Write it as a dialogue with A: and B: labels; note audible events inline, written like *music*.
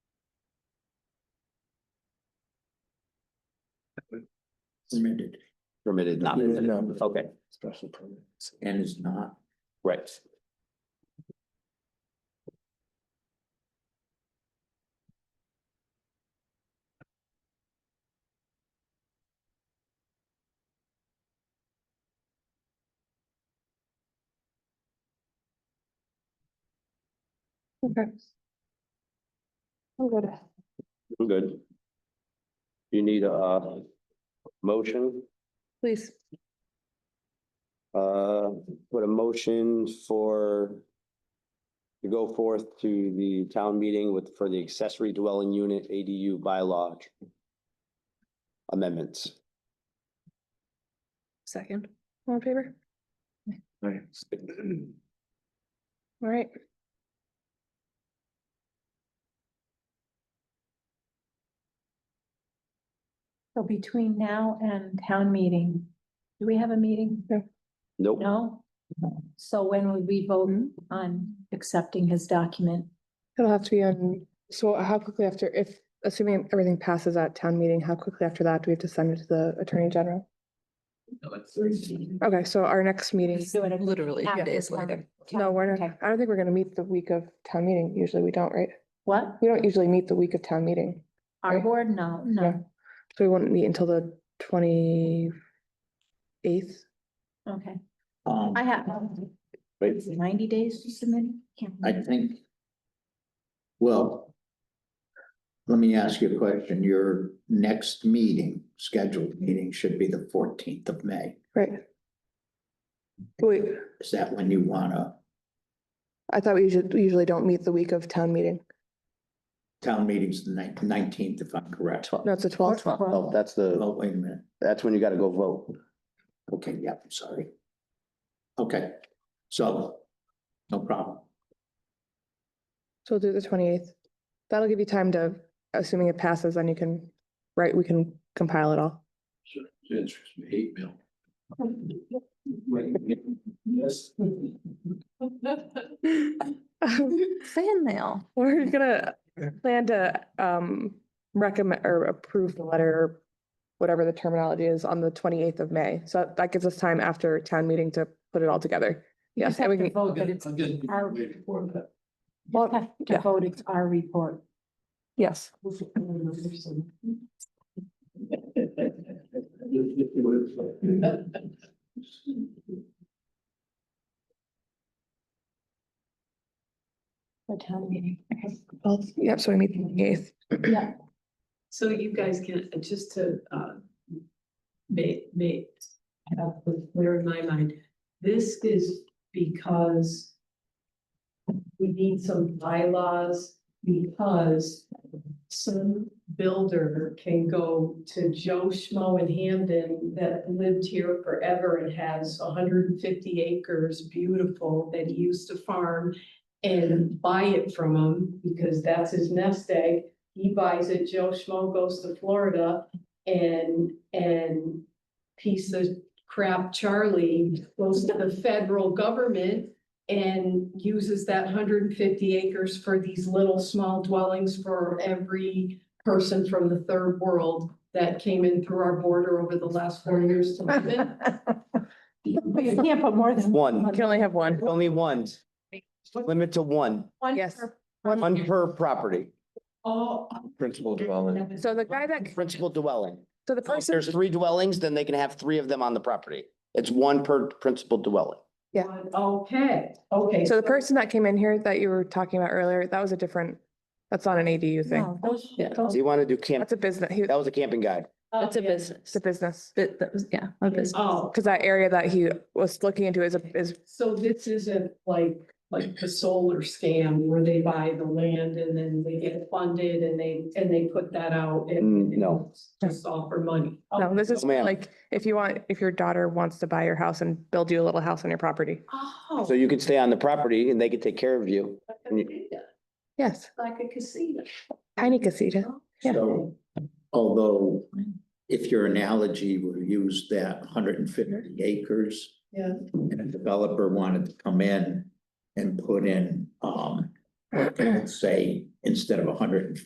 A: permitted
B: permitted,
C: Not,
A: Yeah,
C: permitted.
A: no.
C: okay,
A: special permit and is not.
C: right.
D: Okay. I'm good.
C: I'm good. You need a uh, motion,
D: Please,
C: uh, what a motion for to go forth to the town meeting with, for the accessory dwelling unit ADU bylaw amendments.
D: second, all in favor?
A: Right.
D: All right.
E: So between now and town meeting, do we have a meeting?
C: Nope,
E: No? So when would we vote
D: Hmm?
E: on accepting his document?
D: It'll have to be on, so how quickly after, if, assuming everything passes at town meeting, how quickly after that do we have to send it to the attorney general? Okay, so our next meeting,
E: Literally days later.
D: no, we're not, I don't think we're gonna meet the week of town meeting. Usually we don't, right?
E: What?
D: We don't usually meet the week of town meeting.
E: Our board? No, no.
D: So we won't meet until the twenty eighth.
E: Okay.
A: Um,
E: I have
C: wait,
E: ninety days to submit. Can't
A: I think. Well. Let me ask you a question. Your next meeting, scheduled meeting should be the fourteenth of May.
D: right? Wait,
A: Is that when you wanna,
D: I thought we usually, usually don't meet the week of town meeting.
A: town meeting's the nineteenth, if I'm correct?
D: No, it's the twelfth.
C: oh,
E: Well,
C: that's the,
A: Oh, wait a minute.
C: that's when you gotta go vote.
A: Okay, yeah, I'm sorry. Okay, so, no problem.
D: So we'll do the twenty eighth. That'll give you time to, assuming it passes, then you can, right, we can compile it all.
A: Interests me, hate mail. Yes.
D: *laughs* Fan mail. We're gonna plan to um recommend or approve the letter, whatever the terminology is, on the twenty eighth of May. So that- that gives us time after town meeting to put it all together.
E: You just
D: Yes, and
E: have
D: we
E: to
D: can,
E: vote, but it's our report. You have to
D: yeah.
E: vote, it's our report.
D: yes.
E: For town meeting.
D: *laughs*
E: Okay.
D: Well, yep, so we meet the twenty eighth.
E: Yeah.
F: So you guys can, just to, uh, make, make, uh, clear in my mind, this is because we need some bylaws because some builder can go to Joe Schmo in Hamden that lived here forever and has hundred and fifty acres, beautiful, that he used to farm and buy it from him because that's his nest egg he buys it, Joe Schmo goes to Florida and, and piece of crap Charlie goes to the federal government and uses that hundred and fifty acres for these little small dwellings for every person from the third world that came in through our border over the last
D: *laughs*
F: four years to live in.
E: But you can't put more than.
C: One,
D: Can only have one.
C: only one. Limit to one,
E: one
D: Yes.
E: per-
C: one per property,
F: All.
B: principal dwelling.
D: So the guy that,
C: principal dwelling.
D: so the
C: So If
D: person,
C: there's three dwellings, then they can have three of them on the property. It's one per principal dwelling.
D: Yeah.
F: Okay, okay.
D: so the person that came in here that you were talking about earlier, that was a different, that's not an ADU thing.
E: No, those-
C: So you want to do camp,
D: That's a business, he,
C: that was a camping guy.
F: That's a
D: it's a business.
F: Uh, Oh,
D: Cause that area that he was looking into is, a is,
F: So this isn't like, like the solar scam where they buy the land and then they get funded and they, and they put that out and.
C: Mm, no.
F: it's Just all for money.
D: no, this is
C: No, Oh, ma'am.
D: like, if you want, if your daughter wants to buy your house and build you a little house on your property.
F: Oh.
C: So you could stay on the property and they could take care of you.
F: Like a casita,
D: Yes,
F: Like a casino.
D: tiny casita. Yeah.
A: So, although if your analogy were used that hundred and fifty acres
F: Yeah.
A: and a developer wanted to come in and put in, um, let's say, instead of hundred and